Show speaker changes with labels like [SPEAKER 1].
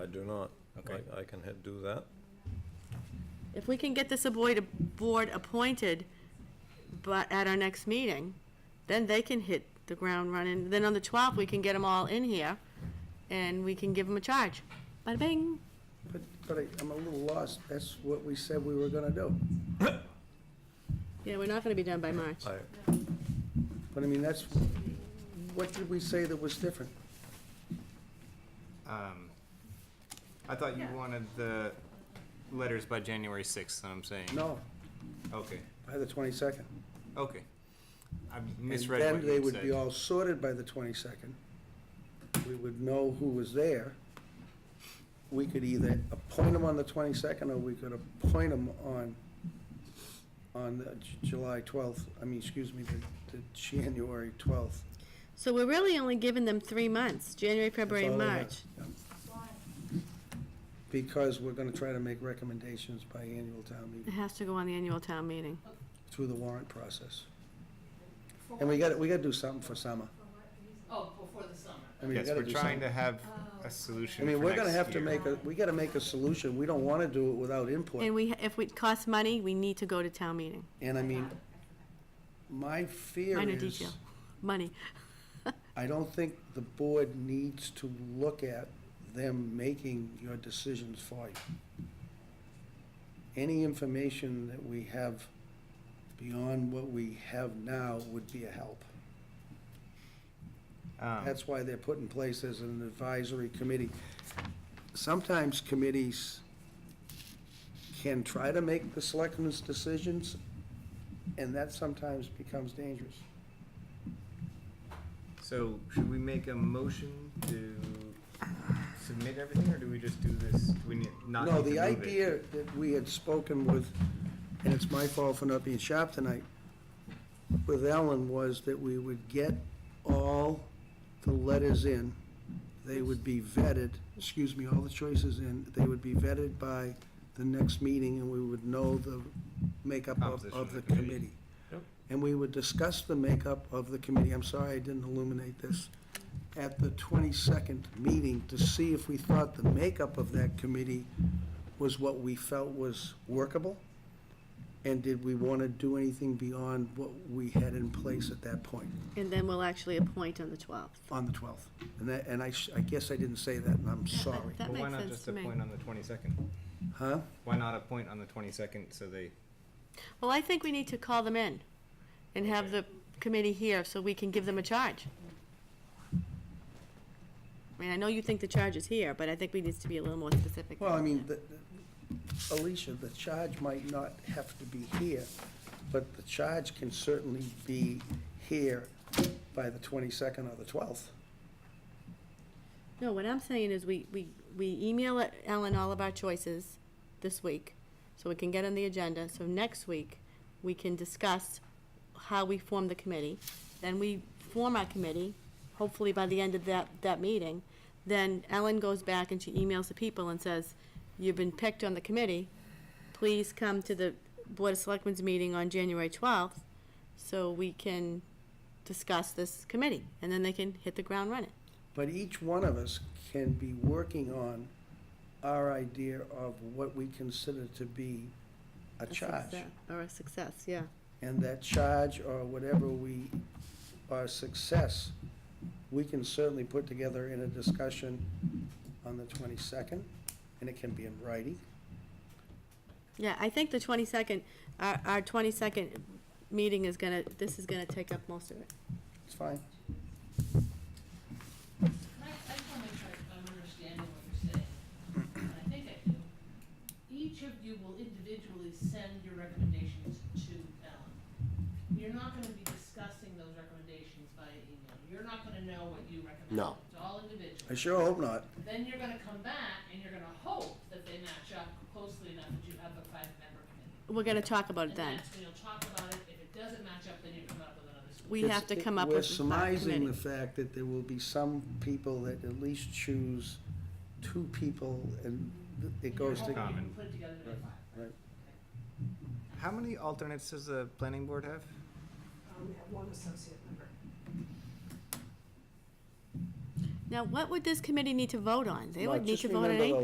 [SPEAKER 1] do not.
[SPEAKER 2] Okay.
[SPEAKER 1] I- I can hit do that.
[SPEAKER 3] If we can get this avoid, board appointed, but at our next meeting, then they can hit the ground running. Then on the twelfth, we can get them all in here, and we can give them a charge. Bada bing.
[SPEAKER 4] But, but I- I'm a little lost. That's what we said we were gonna do.
[SPEAKER 3] Yeah, we're not gonna be done by March.
[SPEAKER 1] I,
[SPEAKER 4] But I mean, that's, what did we say that was different?
[SPEAKER 2] Um, I thought you wanted the letters by January sixth, I'm saying.
[SPEAKER 4] No,
[SPEAKER 2] Okay,
[SPEAKER 4] by the 22nd.
[SPEAKER 2] okay. I misread
[SPEAKER 4] And
[SPEAKER 2] what
[SPEAKER 4] then they
[SPEAKER 2] you
[SPEAKER 4] would be
[SPEAKER 2] said.
[SPEAKER 4] all sorted by the 22nd. We would know who was there. We could either appoint them on the 22nd, or we could appoint them on, on the J- July 12th, I mean, excuse me, the, the January 12th.
[SPEAKER 3] So we're really only giving them three months, January, February,
[SPEAKER 4] That's
[SPEAKER 3] and
[SPEAKER 4] all I
[SPEAKER 3] March.
[SPEAKER 4] have. Yeah. Because we're gonna try to make recommendations by annual town
[SPEAKER 3] It
[SPEAKER 4] meeting
[SPEAKER 3] has to go on the annual town meeting.
[SPEAKER 4] through the warrant process. And we gotta, we gotta do something for summer.
[SPEAKER 5] Oh, before the summer.
[SPEAKER 4] I mean, we
[SPEAKER 2] Yes,
[SPEAKER 4] gotta
[SPEAKER 2] we're
[SPEAKER 4] do
[SPEAKER 2] trying
[SPEAKER 4] something.
[SPEAKER 2] to have
[SPEAKER 5] Oh.
[SPEAKER 2] a
[SPEAKER 4] I
[SPEAKER 2] solution
[SPEAKER 4] mean,
[SPEAKER 2] for
[SPEAKER 4] we're gonna
[SPEAKER 2] next
[SPEAKER 4] have to
[SPEAKER 2] year.
[SPEAKER 4] make a, we gotta make a solution. We don't wanna do it without
[SPEAKER 3] And
[SPEAKER 4] input.
[SPEAKER 3] we, if it costs money, we need to go to town meeting.
[SPEAKER 4] And I mean, my fear
[SPEAKER 3] Minor
[SPEAKER 4] is,
[SPEAKER 3] detail, money.
[SPEAKER 4] I don't think the board needs to look at them making your decisions for you. Any information that we have beyond what we have now would be a help.
[SPEAKER 2] Um,
[SPEAKER 4] That's why they're put in place as an advisory committee. Sometimes committees can try to make the selectmen's decisions, and that sometimes becomes dangerous.
[SPEAKER 2] So should we make a motion to submit everything, or do we just do this, do we need, not
[SPEAKER 4] No,
[SPEAKER 2] need
[SPEAKER 4] the
[SPEAKER 2] to move it?
[SPEAKER 4] idea that we had spoken with, and it's my fault for not being sharp tonight, with Ellen was that we would get all the letters in. They would be vetted, excuse me, all the choices in, they would be vetted by the next meeting and we would know the makeup of,
[SPEAKER 2] Composition
[SPEAKER 4] of the committee.
[SPEAKER 2] Yep.
[SPEAKER 4] And we would discuss the makeup of the committee, I'm sorry I didn't illuminate this, at the twenty-second meeting to see if we thought the makeup of that committee was what we felt was workable? And did we want to do anything beyond what we had in place at that point
[SPEAKER 3] And then we'll actually appoint on the twelfth.
[SPEAKER 4] on the 12th? And that, and I, sh- I guess I didn't say that, and I'm sorry.
[SPEAKER 3] That
[SPEAKER 2] Well,
[SPEAKER 3] makes
[SPEAKER 2] why not
[SPEAKER 3] sense
[SPEAKER 2] just
[SPEAKER 3] to me.
[SPEAKER 2] appoint on the twenty-second?
[SPEAKER 4] Huh?
[SPEAKER 2] Why not appoint on the twenty-second, so they,
[SPEAKER 3] Well, I think we need to call them in and have the committee here so we can give them a charge. I mean, I know you think the charge is here, but I think we need to be a little more specific.
[SPEAKER 4] Well, I mean, the- Alicia, the charge might not have to be here, but the charge can certainly be here by the 22nd or the 12th.
[SPEAKER 3] No, what I'm saying is we, we, we email Ellen all of our choices this week, so we can get on the agenda, so next week, we can discuss how we form the committee. Then we form our committee, hopefully by the end of that, that meeting. Then Ellen goes back and she emails the people and says, you've been picked on the committee. Please come to the Board of Selectmen's meeting on January twelfth, so we can discuss this committee, and then they can hit the ground running.
[SPEAKER 4] But each one of us can be working on our idea of what we consider to be a
[SPEAKER 3] A
[SPEAKER 4] charge.
[SPEAKER 3] success- Or a success, yeah.
[SPEAKER 4] And that charge or whatever we, our success, we can certainly put together in a discussion on the twenty-second, and it can be in writing.
[SPEAKER 3] Yeah, I think the twenty-second, our, our twenty-second meeting is gonna, this is gonna take up most of it.
[SPEAKER 4] It's fine.
[SPEAKER 5] I, I just wanna make sure I'm understanding what you're saying, and I think I do. Each of you will individually send your recommendations to Ellen. You're not gonna be discussing those recommendations by email. You're not gonna know what you recommend.
[SPEAKER 4] No.
[SPEAKER 5] It's all individual.
[SPEAKER 4] I sure hope not.
[SPEAKER 5] Then you're gonna come back and you're gonna hope that they match up closely enough that you have a five-member committee.
[SPEAKER 3] We're gonna talk about it
[SPEAKER 5] And
[SPEAKER 3] then.
[SPEAKER 5] that's when you'll talk about it. If it doesn't match up, then you come up with another solution.
[SPEAKER 3] We
[SPEAKER 4] It's-
[SPEAKER 3] have to come up with a
[SPEAKER 4] We're surmising the
[SPEAKER 3] committee.
[SPEAKER 4] fact that there will be some people that at least choose two people, and it goes
[SPEAKER 5] You're
[SPEAKER 4] to.
[SPEAKER 5] hoping you
[SPEAKER 2] Common.
[SPEAKER 5] can put it together to make five.
[SPEAKER 4] Right.
[SPEAKER 2] how many alternates does the planning board have?
[SPEAKER 6] Um, we have one associate member.
[SPEAKER 3] Now, what would this committee need to vote on? They
[SPEAKER 4] Mark,
[SPEAKER 3] would need
[SPEAKER 4] just
[SPEAKER 3] to vote on
[SPEAKER 4] remember,
[SPEAKER 3] anything.
[SPEAKER 4] though,